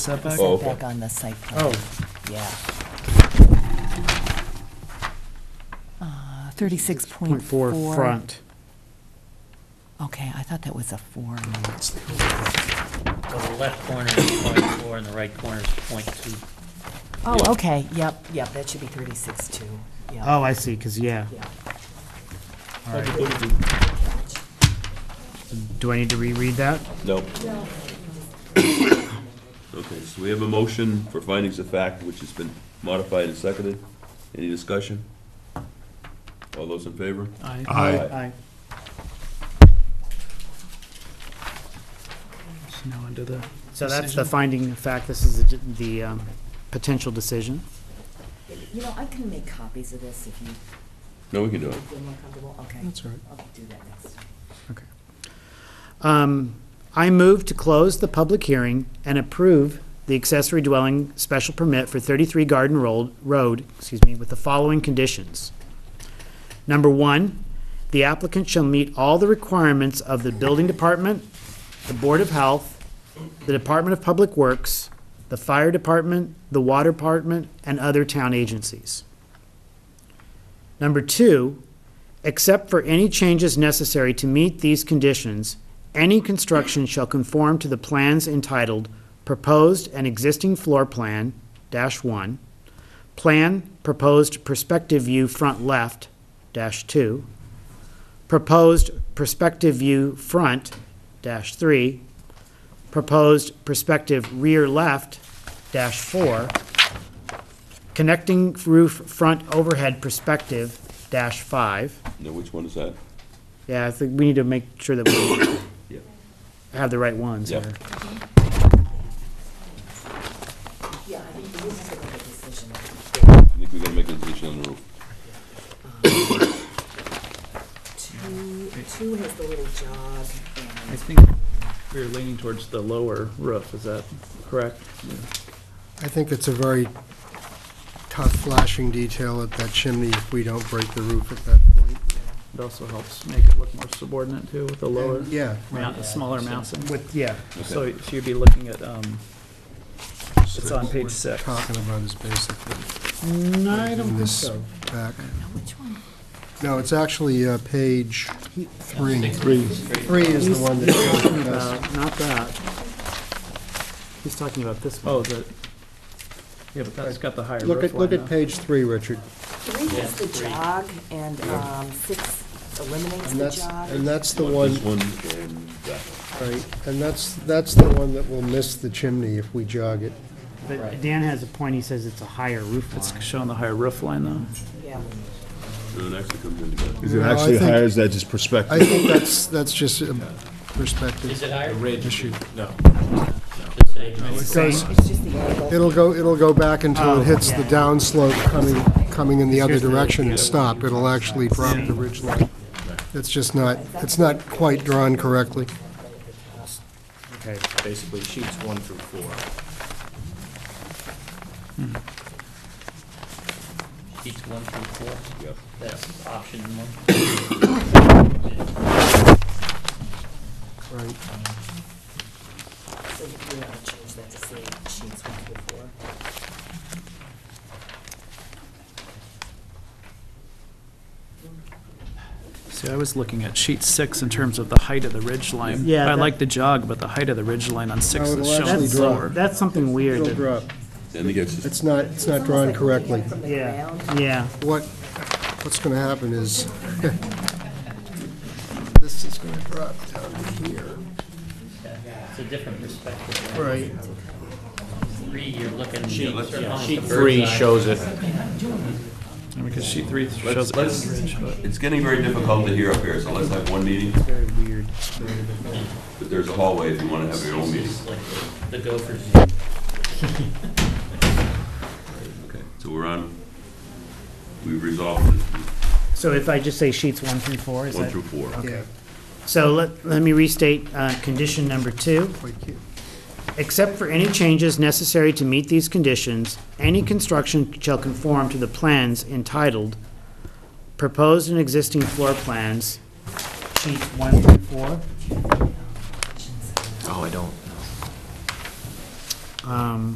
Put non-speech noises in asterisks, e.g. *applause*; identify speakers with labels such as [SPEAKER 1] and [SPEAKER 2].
[SPEAKER 1] setback?
[SPEAKER 2] Oh.
[SPEAKER 3] setback on the site plan,
[SPEAKER 1] Oh,
[SPEAKER 3] yeah. Uh, Thirty-six
[SPEAKER 4] Point four front.
[SPEAKER 3] Okay, I thought that was a four.
[SPEAKER 5] So the left corner is point four and the right corner is point two.
[SPEAKER 3] Oh, okay, yep, yep, that should be thirty-six two, yeah,
[SPEAKER 4] Oh, I see, because, yeah.
[SPEAKER 3] yeah.
[SPEAKER 4] All right. Do I need to reread that?
[SPEAKER 2] No. Okay, so we have a motion for findings of fact, which has been modified and seconded. Any discussion? All those in favor?
[SPEAKER 4] Aye.
[SPEAKER 2] Aye.
[SPEAKER 4] Aye.
[SPEAKER 1] now under the,
[SPEAKER 4] So that's the finding of fact, this is the d- the um, potential decision.
[SPEAKER 3] You know, I can make copies of this if you
[SPEAKER 2] No, we can do it.
[SPEAKER 3] feel more comfortable, okay.
[SPEAKER 1] that's all right.
[SPEAKER 3] I'll do that next time.
[SPEAKER 4] Um, I move to close the public hearing and approve the accessory dwelling special permit for 33 Garden Road, Road, excuse me, with the following conditions. Number one, the applicant shall meet all the requirements of the building department, the Board of Health, the Department of Public Works, the Fire Department, the Water Department, and other town agencies. Number two, except for any changes necessary to meet these conditions, any construction shall conform to the plans entitled Proposed and Existing Floor Plan, dash one, Plan Proposed Perspective View Front Left, dash two, Proposed Perspective View Front, dash three, Proposed Perspective Rear Left, dash four, Connecting Roof Front Overhead Perspective, dash five,
[SPEAKER 2] Now, which one is that?
[SPEAKER 4] yeah, I think we need to make sure that we
[SPEAKER 2] *coughs* Yeah.
[SPEAKER 4] have the right ones
[SPEAKER 2] Yep.
[SPEAKER 4] here.
[SPEAKER 3] Yeah, I think you have to make a decision.
[SPEAKER 2] I think we gotta make a decision on the roof.
[SPEAKER 3] Two, two has the little jog
[SPEAKER 6] I
[SPEAKER 3] and.
[SPEAKER 6] think we're leaning towards the lower roof, is that correct?
[SPEAKER 1] I think it's a very tough flashing detail at that chimney if we don't break the roof at that point.
[SPEAKER 6] It also helps make it look more subordinate too with the lower,
[SPEAKER 1] Yeah,
[SPEAKER 6] mount- smaller mounting.
[SPEAKER 4] With, yeah,
[SPEAKER 6] So so you'd be looking at, um, it's on page six.
[SPEAKER 1] talking about is basically
[SPEAKER 4] no, Mm, I don't think
[SPEAKER 1] this
[SPEAKER 4] so.
[SPEAKER 1] back.
[SPEAKER 3] Which one?
[SPEAKER 1] No, it's actually uh, page three. Three. Three is the one
[SPEAKER 4] Talking
[SPEAKER 1] that,
[SPEAKER 4] about, Uh, not that. He's talking about this one.
[SPEAKER 6] Oh, the, yeah, but that's got the higher
[SPEAKER 1] look
[SPEAKER 6] roof
[SPEAKER 1] at, look
[SPEAKER 6] line
[SPEAKER 1] at
[SPEAKER 6] though.
[SPEAKER 1] page three, Richard.
[SPEAKER 3] Three has the jog and, um, six eliminates
[SPEAKER 1] And
[SPEAKER 3] the
[SPEAKER 1] that's,
[SPEAKER 3] jog.
[SPEAKER 1] and that's the one,
[SPEAKER 2] This one and that one.
[SPEAKER 1] right, and that's, that's the one that will miss the chimney if we jog it.
[SPEAKER 4] But Dan has a point, he says it's a higher roof
[SPEAKER 6] It's
[SPEAKER 4] line.
[SPEAKER 6] showing the higher roof line though.
[SPEAKER 3] Yeah.
[SPEAKER 2] No, it actually comes in together.
[SPEAKER 7] Is it
[SPEAKER 1] No, I
[SPEAKER 7] actually
[SPEAKER 1] think-
[SPEAKER 7] higher, is that just
[SPEAKER 1] I
[SPEAKER 7] perspective?
[SPEAKER 1] think that's, that's just a perspective.
[SPEAKER 5] Is it higher? Ridge. No.
[SPEAKER 4] Same,
[SPEAKER 3] It's just the angle.
[SPEAKER 1] It'll go, it'll go back until
[SPEAKER 4] Oh,
[SPEAKER 1] it hits the
[SPEAKER 4] yeah.
[SPEAKER 1] downslope coming, coming in the other
[SPEAKER 4] Here's the-
[SPEAKER 1] direction
[SPEAKER 4] yeah.
[SPEAKER 1] and stop. It'll actually drop the ridge line. It's just not, it's not quite drawn correctly.
[SPEAKER 4] okay.
[SPEAKER 8] basically sheets one through four.
[SPEAKER 5] Sheets one through four.
[SPEAKER 2] Yep.
[SPEAKER 5] That's option one.
[SPEAKER 1] Right.
[SPEAKER 3] So you want to change that to say sheets one through four.
[SPEAKER 6] See, I was looking at sheet six in terms of the height of the ridge line.
[SPEAKER 4] Yeah,
[SPEAKER 6] I
[SPEAKER 4] that-
[SPEAKER 6] like the jog, but the height of the ridge line on six
[SPEAKER 1] No, it'll
[SPEAKER 6] is shown
[SPEAKER 1] actually drop.
[SPEAKER 6] lower.
[SPEAKER 4] That's something weird.
[SPEAKER 1] It'll
[SPEAKER 4] that-
[SPEAKER 1] drop.
[SPEAKER 2] Then it gets,
[SPEAKER 1] It's not, it's not drawn correctly.
[SPEAKER 3] From the
[SPEAKER 4] Yeah,
[SPEAKER 3] ground.
[SPEAKER 4] yeah.
[SPEAKER 1] What, what's going to happen is, this is going to drop down to here.
[SPEAKER 5] It's a different perspective.
[SPEAKER 1] Right.
[SPEAKER 5] Three, you're looking. Sheet
[SPEAKER 8] Three shows it.
[SPEAKER 6] Because sheet three shows
[SPEAKER 2] let's,
[SPEAKER 6] it as a
[SPEAKER 2] let's,
[SPEAKER 6] ridge, but.
[SPEAKER 2] it's getting very difficult to hear up here, so let's have one meeting,
[SPEAKER 4] Very weird.
[SPEAKER 2] but there's a hallway if you wanna have your own meeting.
[SPEAKER 5] Like the gophers.
[SPEAKER 2] Okay, so we're on, we've resolved this,
[SPEAKER 4] So if I just say sheets one through four, is
[SPEAKER 2] one
[SPEAKER 4] that? Oh,
[SPEAKER 2] through four.
[SPEAKER 1] Yeah,
[SPEAKER 4] So let, let me restate, uh, condition number two.
[SPEAKER 1] quite cute.
[SPEAKER 4] Except for any changes necessary to meet these conditions, any construction shall conform to the plans entitled Proposed and Existing Floor Plans, sheet one through four.
[SPEAKER 8] Oh, I don't.
[SPEAKER 4] Um,